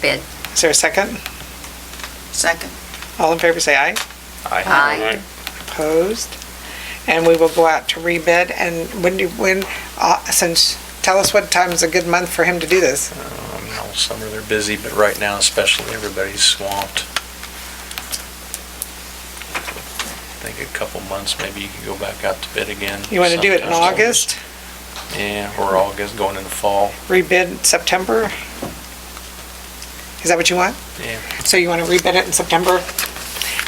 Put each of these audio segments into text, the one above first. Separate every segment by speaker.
Speaker 1: bid.
Speaker 2: Is there a second?
Speaker 3: Second.
Speaker 2: All in favor, say aye.
Speaker 1: Aye.
Speaker 2: Opposed? And we will go out to rebid, and when do, when, uh, since, tell us what time is a good month for him to do this.
Speaker 4: Um, All summer they're busy, but right now especially, everybody's swamped. I think a couple months, maybe you could go back out to bid again.
Speaker 2: You want to do it in
Speaker 4: sometime.
Speaker 2: August,
Speaker 4: Yeah, or August, going into fall,
Speaker 2: rebid September? Is that what you want?
Speaker 4: yeah.
Speaker 2: So you want to rebid it in September,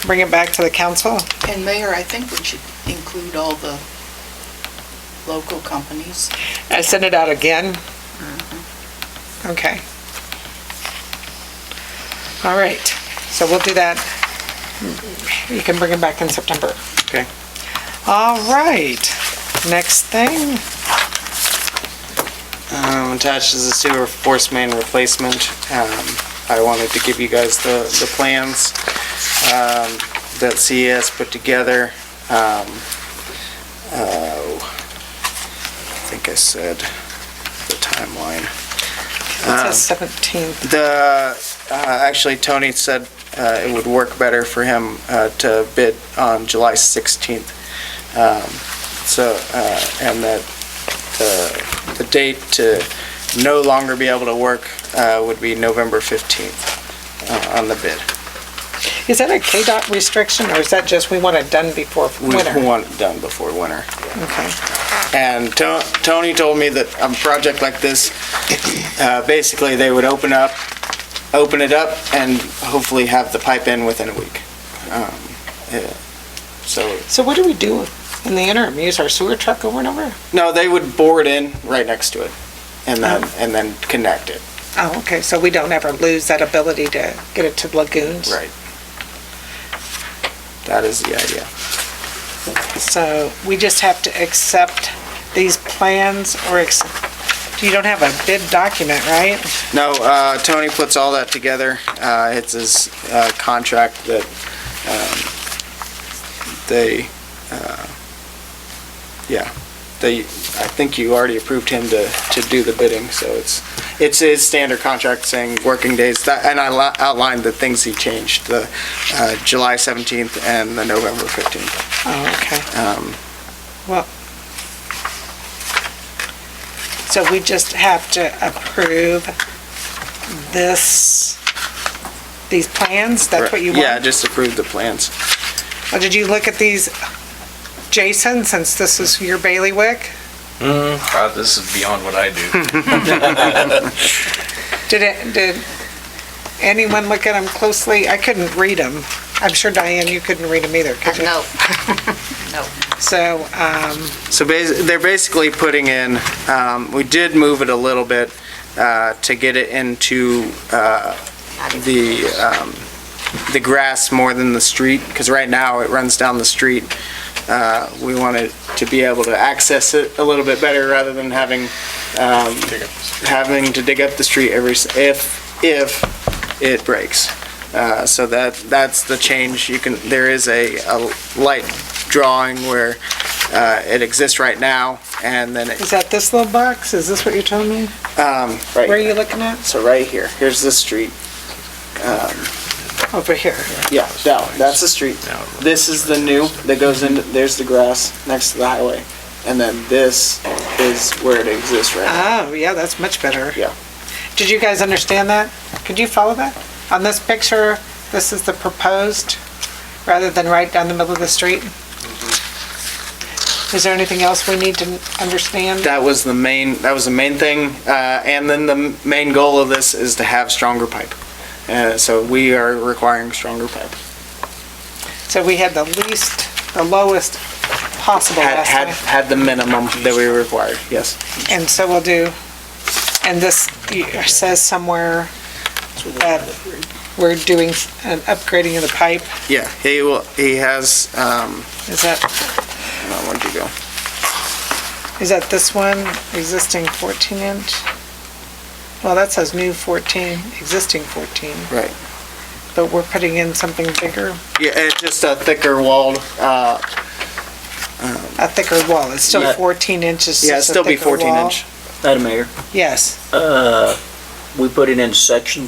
Speaker 2: bring it back to the council?
Speaker 3: And Mayor, I think we should include all the local companies.
Speaker 2: I send it out again? Okay. All right, so we'll do that. You can bring it back in September.
Speaker 5: Okay.
Speaker 2: All right, next thing,
Speaker 5: Um, attached is a sewer force main replacement. Um, I wanted to give you guys the, the plans, um, that CES put together. Um, oh, I think I said the timeline. Ah.
Speaker 2: it says 17th.
Speaker 5: The, uh, actually, Tony said uh, it would work better for him uh, to bid on July 16th. Um, So, uh, and that uh, the date to no longer be able to work uh, would be November 15th uh, on the bid.
Speaker 2: Is that a KDOT restriction, or is that just we want it done before
Speaker 5: We
Speaker 2: winter?
Speaker 5: want it done before winter.
Speaker 2: Okay.
Speaker 5: And To- Tony told me that a project like this, uh, basically, they would open up, open it up, and hopefully have the pipe in within a week. Um, yeah. So,
Speaker 2: So what do we do in the interim? Use our sewer truck over and over?
Speaker 5: no, they would bore it in right next to it, and then, and then connect it.
Speaker 2: Oh, okay, so we don't ever lose that ability to get it to the lagoons?
Speaker 5: Right. That is the idea.
Speaker 2: So we just have to accept these plans or, ex- you don't have a bid document, right?
Speaker 5: No, uh, Tony puts all that together. Uh, It's his uh, contract that um, they, uh, yeah, they, I think you already approved him to, to do the bidding, so it's, it's his standard contract saying working days, That- and I li- outlined the things he changed, the uh, July 17th and the November 15th.
Speaker 2: Oh, okay.
Speaker 5: Um,
Speaker 2: So we just have to approve this, these plans? That's what you
Speaker 5: Yeah,
Speaker 2: want?
Speaker 5: just approved the plans.
Speaker 2: Or did you look at these, Jason, since this is your bailiwick?
Speaker 4: God, Uh, this is beyond what I do.
Speaker 2: Did it, did anyone look at them closely? I couldn't read them. I'm sure Diane, you couldn't read them either, could you?
Speaker 1: No,
Speaker 2: So, um,
Speaker 5: So basi- they're basically putting in, um, we did move it a little bit uh, to get it into uh, the, um, the grass more than the street, because right now it runs down the street. Uh, We wanted to be able to access it a little bit better rather than having, um, having to dig up the street every, s- if, if it breaks. Uh, So that, that's the change. You can, there is a, a light drawing where uh, it exists right now, and then it,
Speaker 2: is that this little box? Is this what you're telling me?
Speaker 5: um,
Speaker 2: Where are
Speaker 5: right,
Speaker 2: you looking at?
Speaker 5: so right here, here's the street. Um,
Speaker 2: Over here.
Speaker 5: Yeah, that, that's the street. This is the new that goes in, there's the grass next to the highway, and then this is where it exists right now.
Speaker 2: Oh, yeah, that's much better.
Speaker 5: Yeah.
Speaker 2: Did you guys understand that? Could you follow that? On this picture, this is the proposed, rather than right down the middle of the street? Is there anything else we need to understand?
Speaker 5: Mm-hmm. That was the main, that was the main thing, uh, and then the m- main goal of this is to have stronger pipe. Uh, so we are requiring stronger pipe.
Speaker 2: So we had the least, the lowest possible
Speaker 5: Had, had,
Speaker 2: estimate,
Speaker 5: had the minimum that we required, yes.
Speaker 2: and so we'll do, and this says somewhere that we're doing an upgrading of the pipe,
Speaker 5: Yeah, he will, he has, um,
Speaker 2: is that?
Speaker 5: hang on, where'd you go?
Speaker 2: Is that this one, existing 14 inch? Well, that says new 14, existing 14,
Speaker 5: Right.
Speaker 2: but we're putting in something bigger,
Speaker 5: Yeah, it's just a thicker walled, uh,
Speaker 2: a thicker wall. It's still
Speaker 5: Yeah.
Speaker 2: 14 inches.
Speaker 5: yeah,
Speaker 2: just
Speaker 5: it'd
Speaker 2: a
Speaker 5: still be
Speaker 2: thicker
Speaker 5: 14
Speaker 2: wall.
Speaker 5: inch.
Speaker 6: Madam Mayor,
Speaker 2: Yes.
Speaker 6: uh, we put it in sections